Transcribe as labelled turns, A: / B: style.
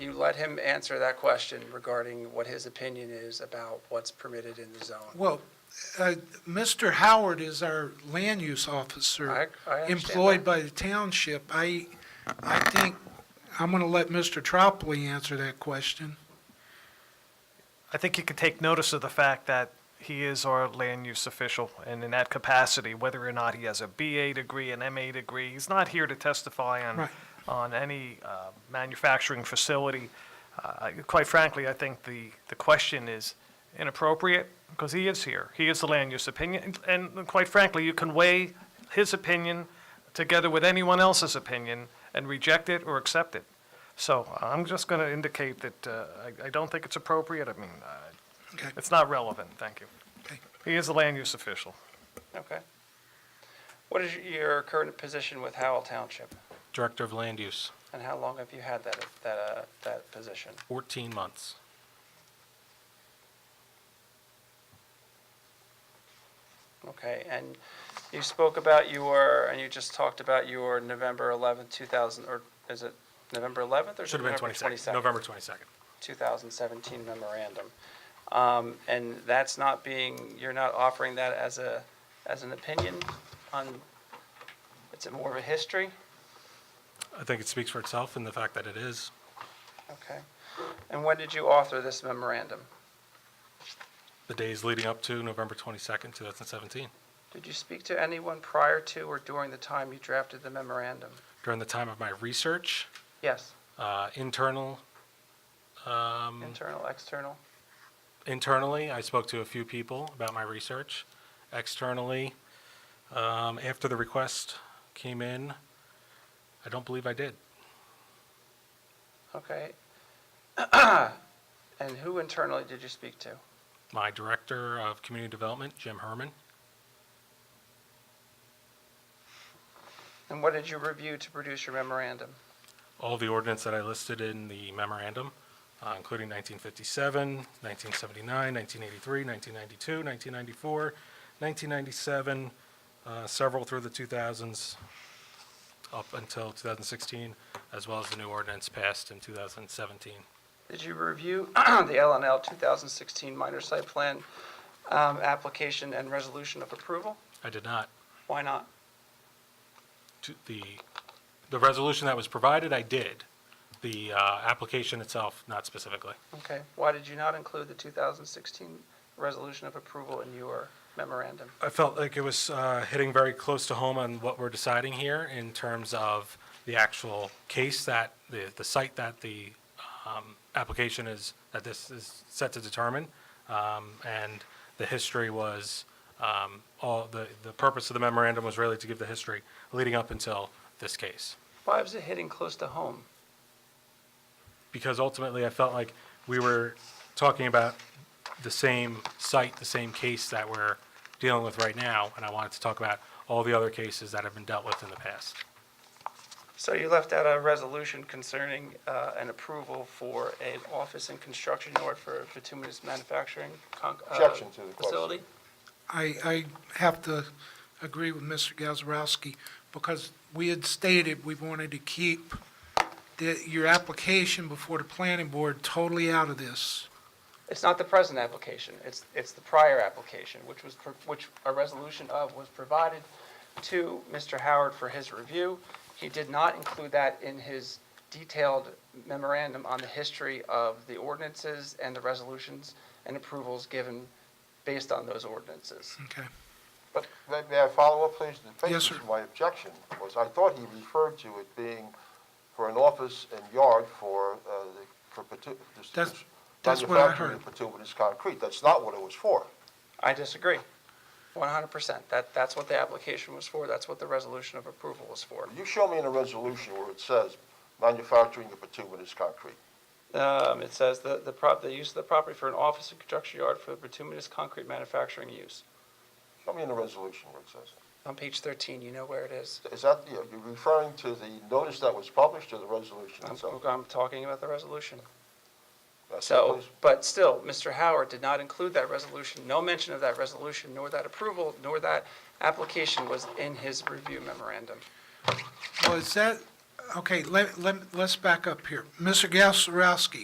A: you let him answer that question regarding what his opinion is about what's permitted in the zone.
B: Well, uh, Mr. Howard is our land use officer.
A: I- I understand
B: Employed
A: that.
B: by the township. I, I think, I'm going to let Mr. Tropoli answer that question.
C: I think you can take notice of the fact that he is our land use official, and in that capacity, whether or not he has a BA degree, an MA degree, he's not here to testify on,
B: Right.
C: on any uh, manufacturing facility. Uh, I- Quite frankly, I think the, the question is inappropriate, because he is here. He is the land use opinion, and and quite frankly, you can weigh his opinion together with anyone else's opinion and reject it or accept it. So I'm just going to indicate that uh, I I don't think it's appropriate. I mean, uh,
B: Okay.
C: it's not relevant, thank you.
B: Okay.
C: He is a land use official.
A: Okay. What is your current position with Howell Township?
D: Director of Land Use,
A: And how long have you had that, that, uh, that position?
D: 14 months.
A: Okay, and you spoke about your, and you just talked about your November 11th, 2000, or is it November 11th or
D: Should have been
A: November
D: 22nd, November 22nd.
A: 2017 memorandum. Um, And that's not being, you're not offering that as a, as an opinion on, it's more of a history?
D: I think it speaks for itself in the fact that it is
A: Okay. And when did you author this memorandum?
D: the days leading up to November 22nd, 2017.
A: Did you speak to anyone prior to or during the time you drafted the memorandum?
D: During the time of my research,
A: Yes,
D: uh, internal, um,
A: internal, external?
D: internally, I spoke to a few people about my research. Externally, um, after the request came in, I don't believe I did.
A: Okay. And who internally did you speak to?
D: My Director of Community Development, Jim Herman,
A: And what did you review to produce your memorandum?
D: all the ordinance that I listed in the memorandum, uh, including 1957, 1979, 1983, 1992, 1994, 1997, uh, several through the 2000s, up until 2016, as well as the new ordinance passed in 2017.
A: Did you review the LNL 2016 minor site plan um, application and resolution of approval?
D: I did not,
A: Why not?
D: to- the, the resolution that was provided, I did. The uh, application itself, not specifically.
A: Okay, why did you not include the 2016 resolution of approval in your memorandum?
D: I felt like it was uh, hitting very close to home on what we're deciding here in terms of the actual case that, the, the site that the um, application is, that this is set to determine. Um, And the history was, um, all, the, the purpose of the memorandum was really to give the history leading up until this case.
A: Why was it hitting close to home?
D: because ultimately I felt like we were talking about the same site, the same case that we're dealing with right now, and I wanted to talk about all the other cases that have been dealt with in the past.
A: So you left out a resolution concerning uh, an approval for an office and construction yard for a bituminous manufacturing con- uh,
E: Objection to the question.
A: facility?
B: I, I have to agree with Mr. Gazarovski, because we had stated we wanted to keep the, your application before the planning board totally out of this.
A: It's not the present application, it's, it's the prior application, which was, pro- which a resolution of was provided to Mr. Howard for his review. He did not include that in his detailed memorandum on the history of the ordinances and the resolutions and approvals given based on those ordinances.
B: Okay.
E: But may- may I follow up, please? The
B: Yes, sir.
E: basis of my objection was, I thought he referred to it being for an office and yard for, uh, the- for pitu- this-
B: That's-
E: this
B: that's what I
E: manufacturing
B: heard.
E: of bituminous concrete. That's not what it was for.
A: I disagree, one hundred percent. That, that's what the application was for, that's what the resolution of approval was for.
E: You show me in a resolution where it says manufacturing of bituminous concrete.
A: Um, it says the, the prop, the use of the property for an office and construction yard for bituminous concrete manufacturing use.
E: Show me in a resolution where it says that.
A: On page 13, you know where it is.
E: Is that, you're you're referring to the notice that was published or the resolution
A: I'm,
E: itself?
A: I'm talking about the resolution.
E: That's it,
A: So,
E: please.
A: but still, Mr. Howard did not include that resolution, no mention of that resolution, nor that approval, nor that application was in his review memorandum.
B: Well, is that, okay, let, let, let's back up here. Mr. Gazarovski,